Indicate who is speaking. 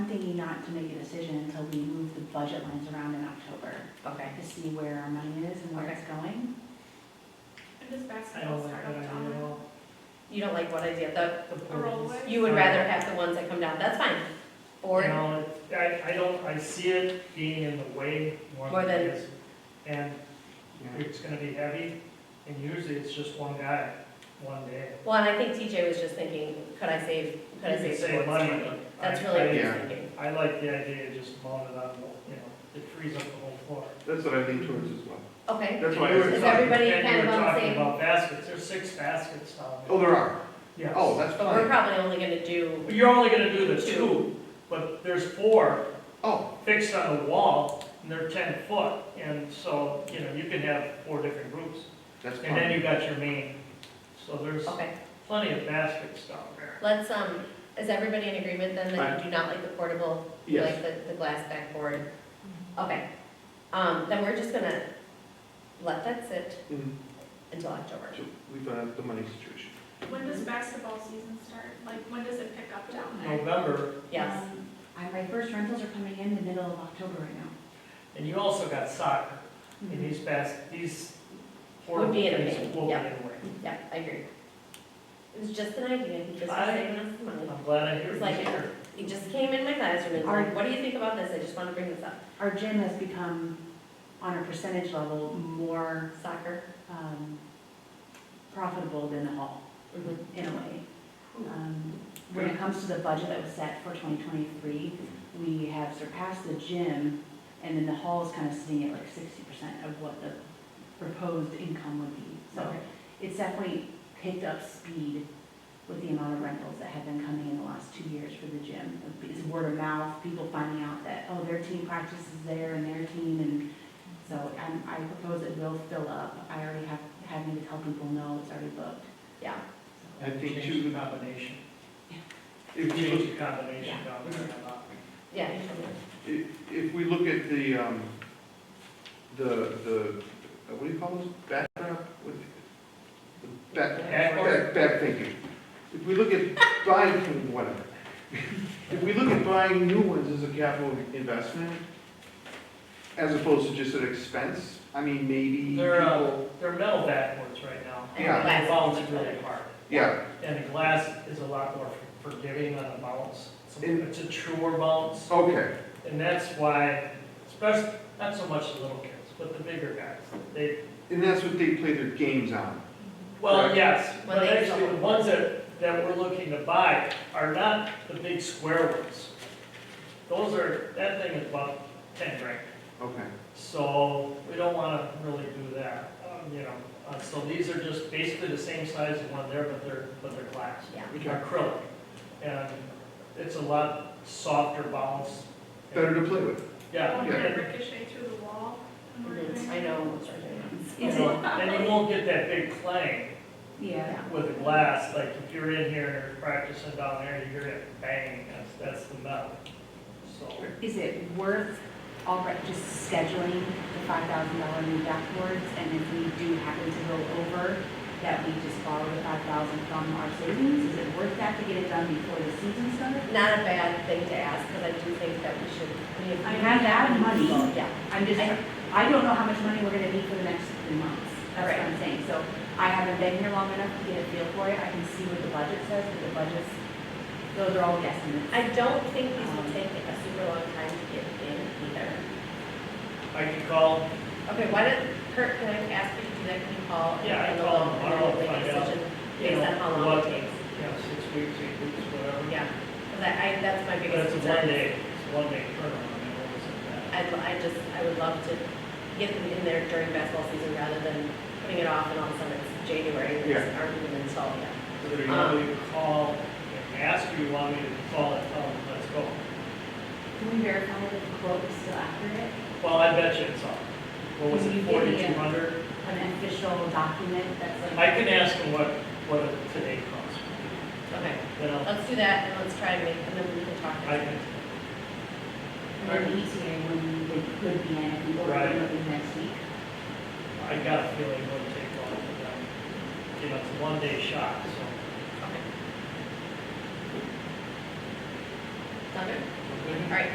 Speaker 1: not to make a decision until we move the budget lines around in October
Speaker 2: Okay.
Speaker 1: to see where our money is and where it's going.
Speaker 3: And does
Speaker 4: I don't
Speaker 3: basketball
Speaker 4: like
Speaker 3: start
Speaker 4: that
Speaker 3: up
Speaker 4: idea at
Speaker 3: down
Speaker 4: all.
Speaker 2: You don't like what idea, the,
Speaker 3: a rollway?
Speaker 2: you would rather have the ones that come down, that's fine.
Speaker 4: You
Speaker 2: Or,
Speaker 4: know, I, I don't, I see it being in the way more
Speaker 2: More
Speaker 4: than it
Speaker 2: than-
Speaker 4: is. And it's gonna be heavy, and usually it's just one guy, one day.
Speaker 2: well, and I think TJ was just thinking, could I save, could I
Speaker 4: You could
Speaker 2: save
Speaker 4: save
Speaker 2: towards
Speaker 4: money,
Speaker 2: money?
Speaker 4: but
Speaker 2: That's
Speaker 4: I-
Speaker 2: really what he's
Speaker 5: I-
Speaker 2: thinking.
Speaker 4: I like the idea of just mowing it on, you know, it frees up the whole floor.
Speaker 5: That's what I lean towards as well.
Speaker 2: Okay,
Speaker 5: That's why. I
Speaker 4: You
Speaker 5: was
Speaker 4: were
Speaker 2: Is
Speaker 5: talking-
Speaker 4: talking-
Speaker 2: everybody
Speaker 4: and you
Speaker 2: kind of
Speaker 4: were
Speaker 2: on the
Speaker 4: talking
Speaker 2: same-
Speaker 4: About baskets, there's six baskets down
Speaker 5: Oh,
Speaker 4: there.
Speaker 5: there are.
Speaker 4: Yes.
Speaker 5: Oh, that's
Speaker 2: but we're
Speaker 5: fine.
Speaker 2: probably only gonna do,
Speaker 4: You're only gonna do the
Speaker 2: Two.
Speaker 4: two, but there's four
Speaker 5: Oh,
Speaker 4: fixed on the wall, and they're ten foot, and so, you know, you can have four different groups.
Speaker 5: that's
Speaker 4: And then you
Speaker 5: fine.
Speaker 4: got your main, so there's
Speaker 2: okay,
Speaker 4: plenty of baskets down there.
Speaker 2: let's, um, is everybody in agreement then that you do not like the portable? You
Speaker 5: Yes.
Speaker 2: like the, the glass backboard? Okay, um, then we're just gonna let that sit
Speaker 5: Mhm.
Speaker 2: until October.
Speaker 5: So We've got the money situation.
Speaker 3: there? When does basketball season start? Like, when does it pick up down there?
Speaker 4: November,
Speaker 2: Yes,
Speaker 1: Um, I- My first rentals are coming in the middle of October right now.
Speaker 4: and you also got soccer,
Speaker 5: Mm-hmm.
Speaker 4: and these bas, these
Speaker 2: Would
Speaker 4: portable
Speaker 2: be in a
Speaker 4: things
Speaker 2: main,
Speaker 4: will be in
Speaker 2: yeah.
Speaker 4: a way.
Speaker 2: yeah, I agree. It was just an idea, he just was
Speaker 4: I-
Speaker 2: saving us some money.
Speaker 4: I'm glad I hear
Speaker 2: It's like-
Speaker 4: you here.
Speaker 2: He just came in my classroom and
Speaker 1: Are-
Speaker 2: said, what do you think about this? I just want to bring this up.
Speaker 1: Our gym has become, on a percentage level, more
Speaker 2: Soccer.
Speaker 1: um, profitable than the hall.
Speaker 2: Mhm.
Speaker 1: in a way. Um, When it comes to the budget that was set for 2023, we have surpassed the gym, and then the hall is kind of sitting at like 60% of what the proposed income would be. So
Speaker 2: Okay.
Speaker 1: it's definitely picked up speed with the amount of rentals that have been coming in the last two years for the gym. It's word of mouth, people finding out that, oh, their team practices there and their team, and so um, I propose it will fill up. I already have, having to tell people, no, it's already booked.
Speaker 2: Yeah.
Speaker 1: So-
Speaker 5: I think
Speaker 4: Change the
Speaker 5: too,
Speaker 4: combination,
Speaker 5: if you look
Speaker 4: change the combination down there. I'm not-
Speaker 2: Yeah. you told me.
Speaker 5: If if we look at the, um, the, the, uh, what do you call those, back, uh, what- the back,
Speaker 4: Backboard?
Speaker 5: back, back thinking. If we look at buying, whatever, if we look at buying new ones as a capital investment, as opposed to just an expense, I mean, maybe
Speaker 4: They're, uh,
Speaker 5: people,
Speaker 4: They're metal backwards right now.
Speaker 2: And
Speaker 5: Yeah.
Speaker 4: They
Speaker 2: glasses.
Speaker 4: bounce really hard.
Speaker 5: yeah,
Speaker 4: And the glass is a lot more forgiving on a bounce. It's a-
Speaker 5: In-
Speaker 4: It's a truer bounce.
Speaker 5: okay,
Speaker 4: And that's why, especially, not so much the little kids, but the bigger guys, they,
Speaker 5: and that's what they play their games on.
Speaker 4: well,
Speaker 5: Correct.
Speaker 4: yes,
Speaker 2: When
Speaker 4: but
Speaker 2: they
Speaker 4: actually, the
Speaker 2: sell.
Speaker 4: ones that, that we're looking to buy are not the big square ones. Those are, that thing is about ten grand,
Speaker 5: Okay,
Speaker 4: so we don't wanna really do that, um, you know. Uh, so these are just basically the same size as one there, but they're, but they're glass,
Speaker 2: Yeah.
Speaker 5: okay,
Speaker 4: acrylic. And it's a lot softer bounce.
Speaker 5: better to play with.
Speaker 4: Yeah,
Speaker 3: Won't it
Speaker 4: and-
Speaker 3: ricochet through the wall? when we're
Speaker 2: Mhm.
Speaker 3: doing
Speaker 2: I
Speaker 3: it?
Speaker 2: know. it's right there.
Speaker 1: Is it,
Speaker 4: and you won't get that big clang.
Speaker 1: yeah,
Speaker 4: with a glass, like if you're in here and you're practicing down there, you hear that bang, that's, that's the metal. So,
Speaker 1: is it worth already just scheduling the five thousand dollar new backboards? And if we do happen to go over, that we just borrow the five thousand from our savings? Is it worth that to get it done before the season starts?
Speaker 2: Not a bad thing to ask, because I do think that we should. we-
Speaker 1: I have that money.
Speaker 2: Yeah,
Speaker 1: I'm just,
Speaker 2: I-
Speaker 1: I don't know how much money we're gonna need for the next three months. That's what I'm saying. So I haven't been here long enough to get a feel for it. I can see what the budget says, but the budgets, those are all guesstimates.
Speaker 2: I don't think these will take a super long time to get in either.
Speaker 4: I could call,
Speaker 2: Okay, why don't, Kurt, can I ask you to do that, can you call? and
Speaker 4: Yeah, I
Speaker 2: find
Speaker 4: call
Speaker 2: out and then
Speaker 4: him tomorrow,
Speaker 2: make a
Speaker 4: find out,
Speaker 2: decision
Speaker 4: you
Speaker 2: Based on how
Speaker 4: know,
Speaker 2: long it
Speaker 4: what, you
Speaker 2: takes.
Speaker 4: know, six weeks, eight weeks, whatever.
Speaker 2: Yeah, because I, I, that's my
Speaker 4: But
Speaker 2: biggest
Speaker 4: it's a one
Speaker 2: concern.
Speaker 4: day, it's a one day turnaround, and what was it,
Speaker 2: I'd, I just, I would love to get them in there during basketball season rather than putting it off and all of a sudden it's January and it's aren't even installed yet.
Speaker 4: that? Whether you want me to call and ask, or you want me to call and tell them, let's go.
Speaker 1: Can we verify that the quote is still accurate?
Speaker 4: Well, I bet you it's on, what was
Speaker 1: Can you give me a-
Speaker 4: it, forty-two hundred?
Speaker 1: an official document that's
Speaker 4: I
Speaker 1: like,
Speaker 4: can ask them what, what it today costs,
Speaker 2: Okay,
Speaker 4: then I'll,
Speaker 2: let's do that and let's try and make, and then we can talk.
Speaker 4: I can,
Speaker 1: an ETA E when it could be in, if we order
Speaker 4: Right.
Speaker 1: it within next week.
Speaker 4: I got a feeling it wouldn't take long for them. You know, it's a one-day shot, so.
Speaker 2: Okay. Sound good?